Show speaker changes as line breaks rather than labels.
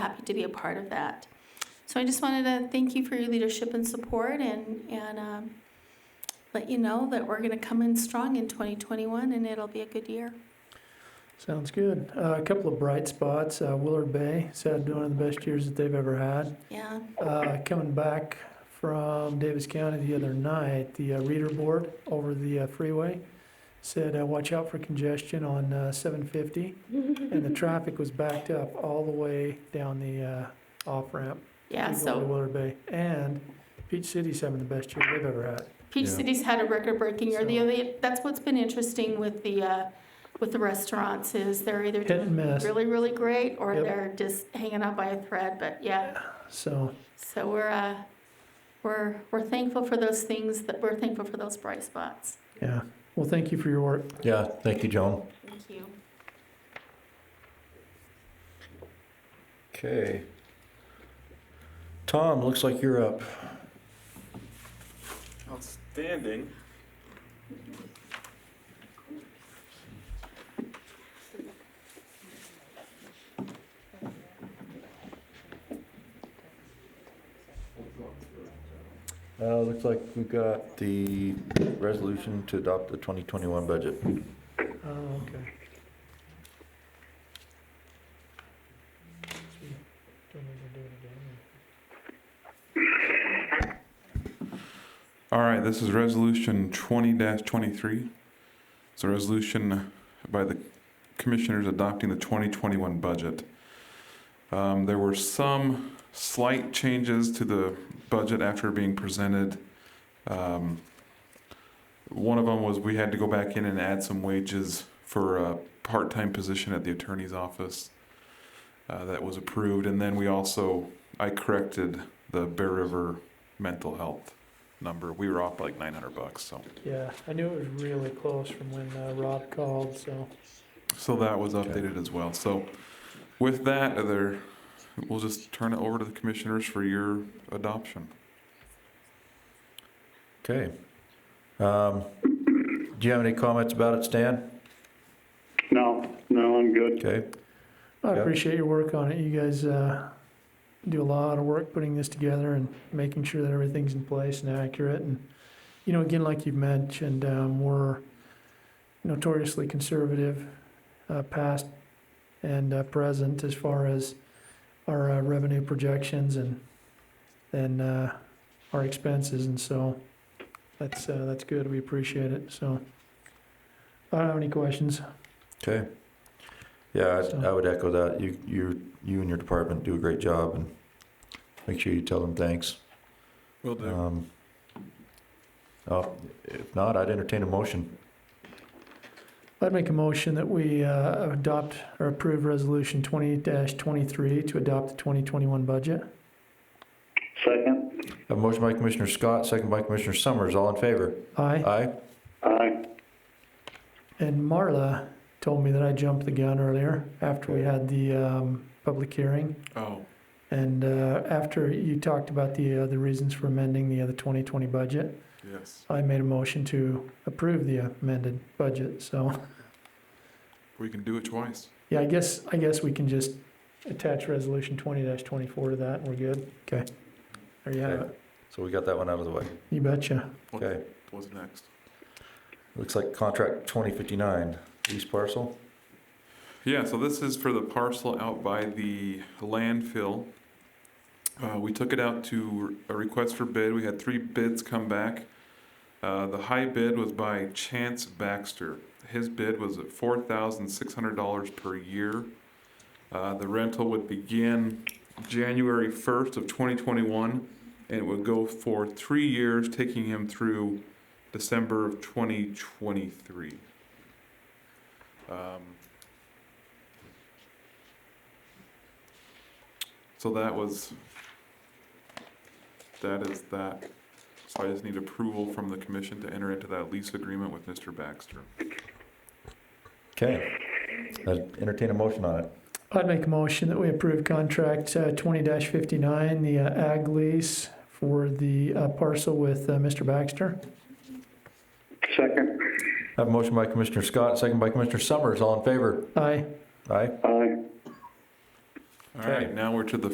happy to be a part of that. So I just wanted to thank you for your leadership and support and, and um, let you know that we're going to come in strong in 2021 and it'll be a good year.
Sounds good. Uh, a couple of bright spots. Uh, Willard Bay has had one of the best years that they've ever had.
Yeah,
Uh, coming back from Davis County the other night, the uh, reader board over the uh, freeway said, uh, watch out for congestion on uh, 750. and the traffic was backed up all the way down the uh, off ramp.
yeah.
To
So
Willard Bay. And Peach City's having the best year they've ever had.
Peach
Yeah.
City's had a record-breaking year. The
So-
other, that's what's been interesting with the uh, with the restaurants is they're either
Hit
doing
and miss.
really really great or
Yep.
they're just hanging out by a thread. But yeah,
So
so we're uh, we're we're thankful for those things that we're thankful for those bright spots.
yeah. Well, thank you for your work.
Yeah, thank you, Joan.
Thank you.
Okay. Tom, looks like you're up.
Outstanding.
Uh, looks like we got the resolution to adopt the 2021 budget.
Oh, okay.
All right, this is resolution twenty twenty-three. It's a resolution by the commissioners adopting the twenty twenty-one budget. Um, there were some slight changes to the budget after being presented. Um, one of them was we had to go back in and add some wages for a part-time position at the attorney's office. Uh, that was approved, and then we also, I corrected the Bear River mental health number. We were off by like 900 bucks. So,
Yeah, I knew it was really close from when uh, Rob called, so.
so that was
Okay.
updated as well. So, with that, are there, we'll just turn it over to the commissioners for your adoption.
Okay. Um, do you have any comments about it, Stan?
No, no, I'm good.
Okay.
I
Yeah.
appreciate your work on it. You guys uh, do a lot of work putting this together and making sure that everything's in place and accurate. And, you know, again, like you've mentioned, um, we're notoriously conservative, uh, past and uh, present, as far as our uh, revenue projections and and uh, our expenses. And so that's uh, that's good. We appreciate it. So I don't have any questions.
Okay. Yeah, I, I would echo that. You, you, you and your department do a great job and make sure you tell them thanks.
Will
Um, oh, if not, I'd entertain a motion.
I'd make a motion that we uh, adopt or approve Resolution 20-23 to adopt the 2021 budget.
Second,
Have a motion by Commissioner Scott, second by Commissioner Summers. All in favor?
Aye.
Aye.
aye.
And Marla told me that I jumped the gun earlier after we had the um, public hearing.
Oh,
And uh, after you talked about the, uh, the reasons for amending the other 2020 budget,
yes.
I made a motion to approve the amended budget. So,
We can do it twice.
yeah, I guess, I guess we can just attach Resolution 20-24 to that and we're good. Okay. There you have it.
So we got that one out of the way.
You betcha.
What-
Okay.
What's next?
Looks like contract 2059, lease parcel.
Yeah, so this is for the parcel out by the landfill. Uh, we took it out to a request for bid. We had three bids come back. Uh, the high bid was by Chance Baxter. His bid was at four thousand six hundred dollars per year. Uh, the rental would begin January first of twenty twenty-one, and it would go for three years, taking him through December of twenty twenty-three. Um, So that was, that is that. So I just need approval from the commission to enter into that lease agreement with Mr. Baxter.
Okay. I'd entertain a motion on it.
I'd make a motion that we approve contract uh, twenty fifty-nine, the uh, ag lease for the uh, parcel with uh, Mr. Baxter.
Second,
Have a motion by Commissioner Scott, second by Commissioner Summers. All in favor?
Aye.
Aye.
aye.
All right, now we're to the